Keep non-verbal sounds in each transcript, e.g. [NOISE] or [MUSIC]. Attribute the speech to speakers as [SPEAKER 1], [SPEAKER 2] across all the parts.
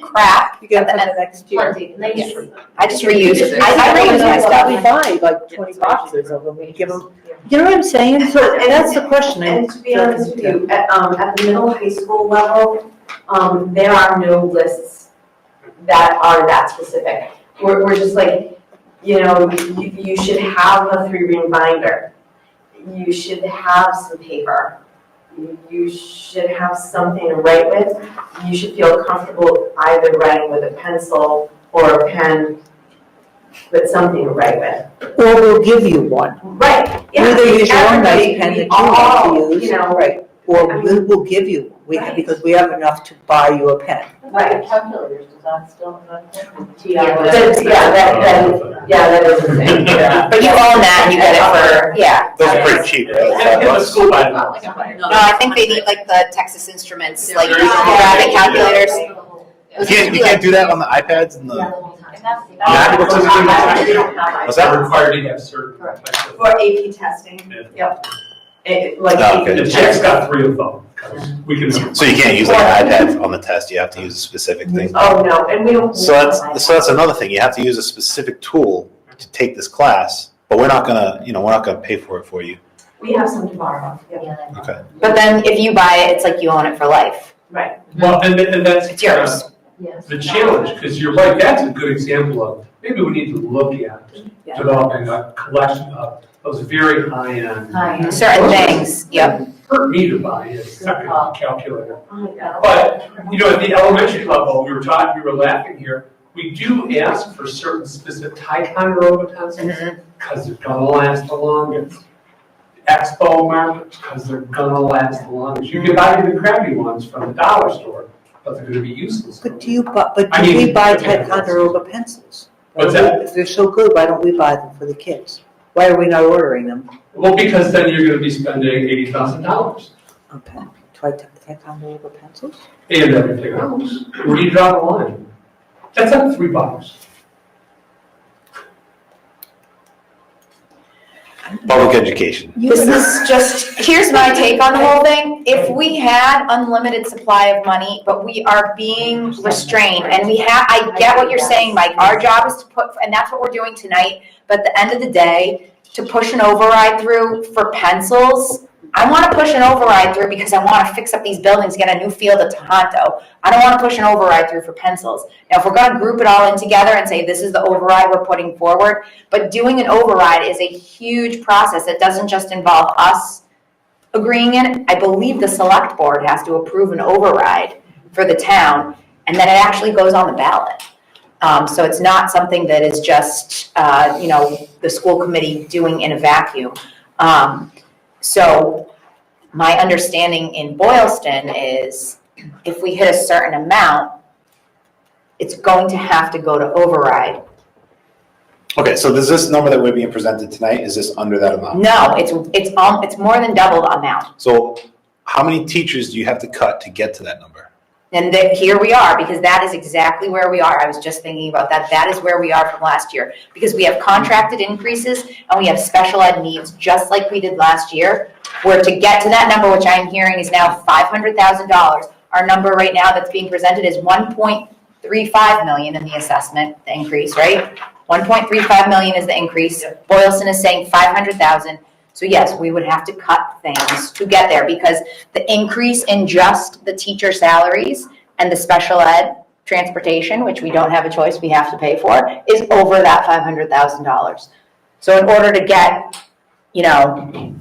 [SPEAKER 1] crap
[SPEAKER 2] You get it
[SPEAKER 1] at
[SPEAKER 2] for
[SPEAKER 1] the
[SPEAKER 2] the
[SPEAKER 1] end.
[SPEAKER 2] next year.
[SPEAKER 1] And they just, I just reuse it. I, I
[SPEAKER 2] don't
[SPEAKER 1] reuse
[SPEAKER 2] even know
[SPEAKER 1] my
[SPEAKER 2] what
[SPEAKER 1] stuff.
[SPEAKER 2] we buy, like twenty boxes of them, we give them, you know what I'm saying? So that's the question. I-
[SPEAKER 3] And to be honest with you, at, um, at the middle high school level, um, there are no lists that are that specific. We're, we're just like, you know, you, you should have a three-ring binder. You should have some paper. You- You should have something to write with. You should feel comfortable either writing with a pencil or a pen, but something to write with.
[SPEAKER 2] Or we'll give you one,
[SPEAKER 3] Right, yeah.
[SPEAKER 2] Either use your own nice
[SPEAKER 3] everybody-
[SPEAKER 2] pen that
[SPEAKER 3] we
[SPEAKER 2] you want to
[SPEAKER 3] all,
[SPEAKER 2] use.
[SPEAKER 3] You know,
[SPEAKER 2] Right. or we will give you, one. we,
[SPEAKER 3] Right.
[SPEAKER 2] because we have enough to buy you a pen.
[SPEAKER 3] Right.
[SPEAKER 1] Calculators, does that still?
[SPEAKER 3] Yeah, but- yeah, that, that, yeah, that is the thing, yeah.
[SPEAKER 1] [LAUGHS] But you own that and you get it for, yeah.
[SPEAKER 4] Those are pretty cheap. those
[SPEAKER 5] Yeah,
[SPEAKER 4] five
[SPEAKER 5] give
[SPEAKER 4] bucks.
[SPEAKER 5] us school by now.
[SPEAKER 1] No, I think they need like the Texas Instruments, like you
[SPEAKER 5] Yeah.
[SPEAKER 1] grab the calculators.
[SPEAKER 4] You can't, you can't do that on the iPads and the.
[SPEAKER 5] Yeah,
[SPEAKER 4] MacBooks are doing that.
[SPEAKER 3] We don't have
[SPEAKER 4] Was
[SPEAKER 3] it.
[SPEAKER 4] that-
[SPEAKER 5] Not required to have certain. types of-
[SPEAKER 3] For AP testing,
[SPEAKER 5] Yeah.
[SPEAKER 3] it, like.
[SPEAKER 4] Oh, okay.
[SPEAKER 5] The
[SPEAKER 3] AP
[SPEAKER 5] check's
[SPEAKER 3] testing.
[SPEAKER 5] got three of them. We can.
[SPEAKER 4] So you can't use like an iPad on the test. You have to use a specific thing.
[SPEAKER 3] Oh, no, and we don't.
[SPEAKER 4] So that's so that's another thing. You have to use a specific tool to take this class, but we're not gonna, you know, we're not gonna pay for it for you.
[SPEAKER 3] We have some tomorrow, yeah,
[SPEAKER 4] Okay.
[SPEAKER 1] But then if you buy it, it's like you own it for life.
[SPEAKER 3] right,
[SPEAKER 5] Well, and, th- and that's.
[SPEAKER 1] It's yours.
[SPEAKER 3] yes.
[SPEAKER 5] The challenge, because you're right, that's a good example of, maybe we need to look at
[SPEAKER 2] Yeah.
[SPEAKER 5] developing a collection of those very high-end.
[SPEAKER 1] Certain things, yep.
[SPEAKER 5] Hurt me to buy a second calculator.
[SPEAKER 3] Oh, my God.
[SPEAKER 5] But, you know, at the elementary level, we were taught, we were laughing here, we do ask for certain specific Ticonderoga
[SPEAKER 2] Mm-hmm.
[SPEAKER 5] pencils, because they're gonna last the longest. Expo markers, because they're gonna last the longest. You can buy the crappy ones from the dollar store, but they're gonna be useless.
[SPEAKER 2] But do you buy, but
[SPEAKER 5] I
[SPEAKER 2] do we
[SPEAKER 5] mean-
[SPEAKER 2] buy Ticonderoga pencils?
[SPEAKER 5] What's that?
[SPEAKER 2] If they're so good, why don't we buy them for the kids? Why are we not ordering them?
[SPEAKER 5] Well, because then you're gonna be spending eighty thousand dollars
[SPEAKER 2] Okay, Ti- Ticonderoga pencils?
[SPEAKER 5] and everything else. Where do you draw the line? That's not three bucks.
[SPEAKER 4] Public education.
[SPEAKER 1] This is just, here's my take on the whole thing. If we had unlimited supply of money, but we are being restrained and we have, I get what you're saying, Mike. Our job is to put, and that's what we're doing tonight, but at the end of the day, to push an override through for pencils, I want to push an override through because I want to fix up these buildings, get a new field at Tohoto. I don't want to push an override through for pencils. Now, if we're going to group it all in together and say this is the override we're putting forward, but doing an override is a huge process. It doesn't just involve us agreeing in. it. I believe the select board has to approve an override for the town, and then it actually goes on the ballot. Um, so it's not something that is just, uh, you know, the school committee doing in a vacuum. Um, so my understanding in Boylston is if we hit a certain amount, it's going to have to go to override.
[SPEAKER 4] Okay, so does this number that we're being presented tonight, is this under that amount?
[SPEAKER 1] No, it's, it's, um, it's more than double the amount.
[SPEAKER 4] So how many teachers do you have to cut to get to that number?
[SPEAKER 1] And that, here we are, because that is exactly where we are. I was just thinking about that. That is where we are from last year. Because we have contracted increases and we have special ed needs, just like we did last year. Where to get to that number, which I'm hearing is now five hundred thousand dollars. Our number right now that's being presented is one point three five million in the assessment, the increase, right? One point three five million is the increase. Boylston is saying five hundred thousand. So yes, we would have to cut things to get there because the increase in just the teacher salaries and the special ed transportation, which we don't have a choice, we have to pay for, is over that five hundred thousand dollars. So in order to get, you know,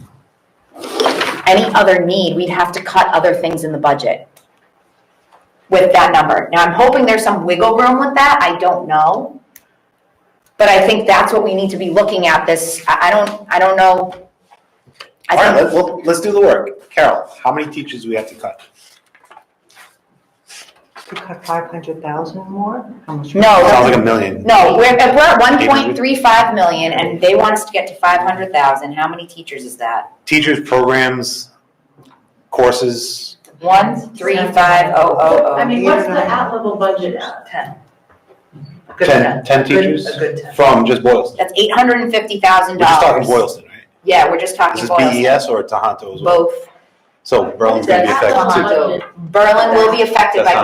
[SPEAKER 1] any other need, we'd have to cut other things in the budget with that number. Now, I'm hoping there's some wiggle room with that, I don't know. But I think that's what we need to be looking at this, I, I don't, I don't know. I
[SPEAKER 4] All right, let-
[SPEAKER 1] think-
[SPEAKER 4] well, let's do the work. Carol, how many teachers do we have to cut?
[SPEAKER 2] To cut five hundred thousand more? How much?
[SPEAKER 4] Oh, Sounds
[SPEAKER 1] No,
[SPEAKER 4] like a million.
[SPEAKER 1] no, we're, if we're at one point three five million and they want us to get to five hundred thousand, how many teachers is that?
[SPEAKER 4] Teachers, programs, courses,
[SPEAKER 1] One, three, five, oh, oh,
[SPEAKER 6] I
[SPEAKER 1] oh.
[SPEAKER 6] mean,
[SPEAKER 5] um,
[SPEAKER 6] what's the at-level budget? Ten. A good
[SPEAKER 4] ten, ten teachers
[SPEAKER 6] A good ten.
[SPEAKER 4] from just Boylston.
[SPEAKER 1] That's eight hundred and fifty thousand
[SPEAKER 4] We're just talking
[SPEAKER 1] dollars.
[SPEAKER 4] Boylston, right?
[SPEAKER 1] Yeah, we're just
[SPEAKER 4] Is
[SPEAKER 1] talking
[SPEAKER 4] this
[SPEAKER 1] Boylston,
[SPEAKER 4] BES or Tohoto as well?
[SPEAKER 1] both.
[SPEAKER 4] So Berlin's gonna be
[SPEAKER 6] That's
[SPEAKER 4] affected too.
[SPEAKER 6] at-level budget.
[SPEAKER 1] Berlin will be affected
[SPEAKER 4] That's
[SPEAKER 1] by
[SPEAKER 4] not